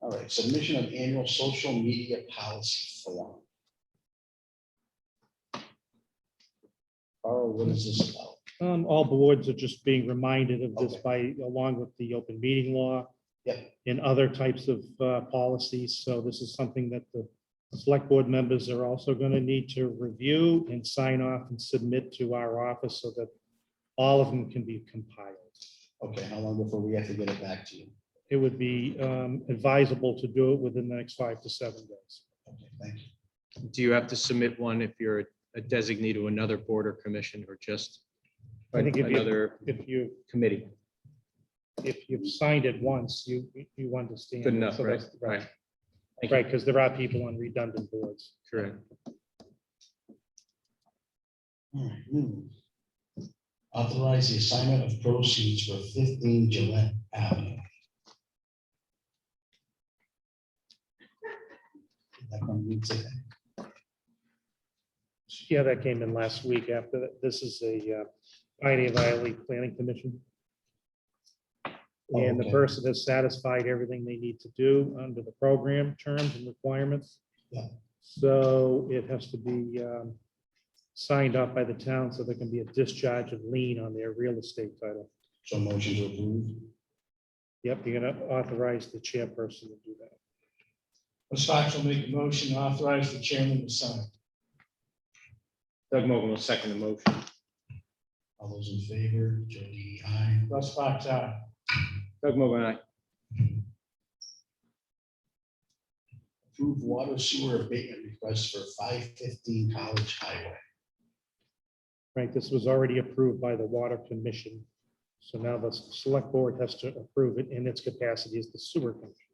All right, submission of annual social media policy form. Carl, what is this about? Um, all boards are just being reminded of this Okay. by, along with the open meeting law. Yep. And other types of, uh, policies. So this is something that the select board members are also going to need to review and sign off and submit to our office so that all of them can be compiled. Okay, how long before we have to get it back to you? It would be, um, advisable to do it within the next five to seven days. Okay, thank you. Do you have to submit one if you're a designee to another board or commission or just I think if you- another If you, committee? if you've signed it once, you, you understand. Good enough, So right? that's- Right, Thank you. Right, because there are people on redundant boards. correct. All right, new. Authorize the assignment of proceeds for fifteen Gillette Avenue. That one we did. Yeah, that came in last week after, that. this is a uh, Pioneer Valley Planning Commission. Oh, And the okay. person has satisfied everything they need to do under the program terms and requirements. Yeah. So it has to be um, signed off by the town so there can be a discharge of lien on their real estate title. So motion to approve. Yep, you're gonna authorize the chairperson to do that. Russ Fox will make a motion to authorize the chairman to sign. Doug Mogul will second the motion. All those in favor, Joe DDI. aye. Russ Fox, aye. Doug Mogul, aye. Approve water sewer abatement request for five fifteen College Highway. Right, this was already approved by the Water Commission. So now the Select Board has to approve it in its capacity as the sewer commission.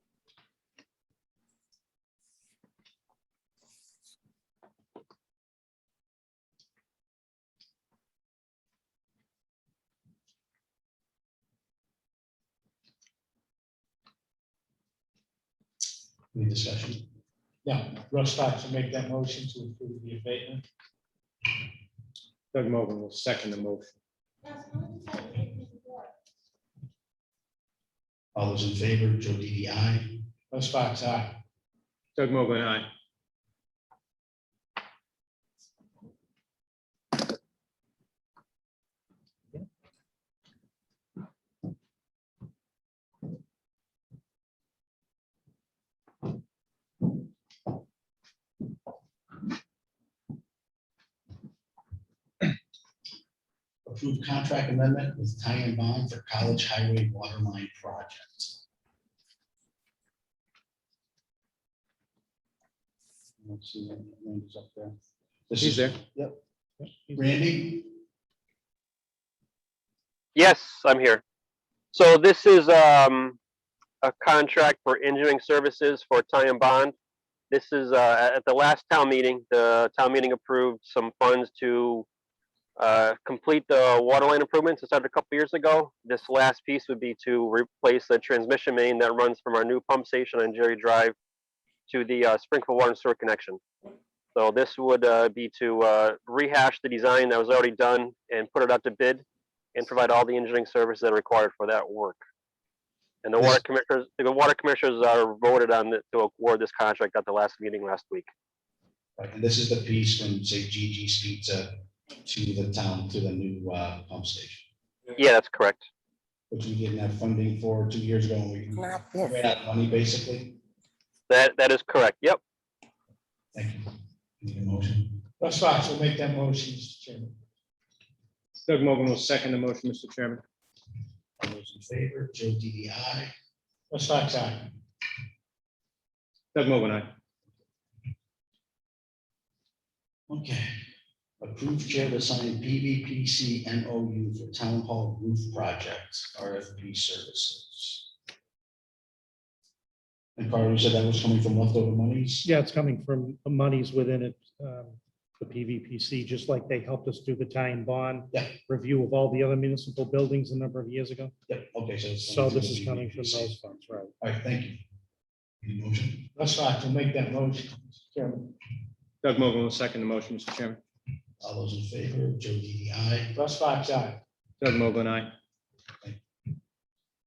Any discussion? Yeah, Russ Fox will make that motion to approve the abatement. Doug Mogul will second the motion. All those in favor, Joe DDI. aye. Russ Fox, aye. Doug Mogul, aye. Approve contract amendment with tie and bond for College Highway Waterline Project. Let's see, Randy's up there. This He's is there. Randy, Yes, I'm here. So this is um, a contract for engineering services for Ty and Bond. This is, uh, at the last town meeting, the town meeting approved some funds to uh, complete the water line improvements that started a couple years ago. This last piece would be to replace the transmission main that runs from our new pump station on Jerry Drive to the uh, Springfield Water and Sewer connection. So this would uh, be to uh, rehash the design that was already done and put it out to bid and provide all the engineering services that are required for that work. And the water commissioners, the water commissioners are voted on th- to award this contract at the last meeting last week. Right, and this is the piece from, say, Gigi's Pizza to the town, to the new uh, pump station, Yeah, that's correct. which we didn't have funding for two years ago, and we Not ran this. out of money, basically. That, that is correct. Yep. Thank you. Need a motion? Russ Fox will make that motion, Mr. Chairman. Doug Mogul will second the motion, Mr. Chairman. All those in favor, Joe DDI. aye. Russ Fox, aye. Doug Mogul, aye. Okay. Approved chair to sign PVPC MOU for Town Hall Roof Project, RFP Services. And Carl, you said that was coming from leftover monies? Yeah, it's coming from monies within it, um, the PVPC, just like they helped us do the tie and bond Yeah. review of all the other municipal buildings a number of years ago. Yep, okay, so. it's So through this is coming from PVPC. those funds, right? All right, thank you. Any motion? Russ Fox will make that motion, Mr. Chairman. Doug Mogul will second the motion, Mr. Chairman. All those in favor, Joe DDI. aye. Russ Fox, aye. Doug Mogul, aye.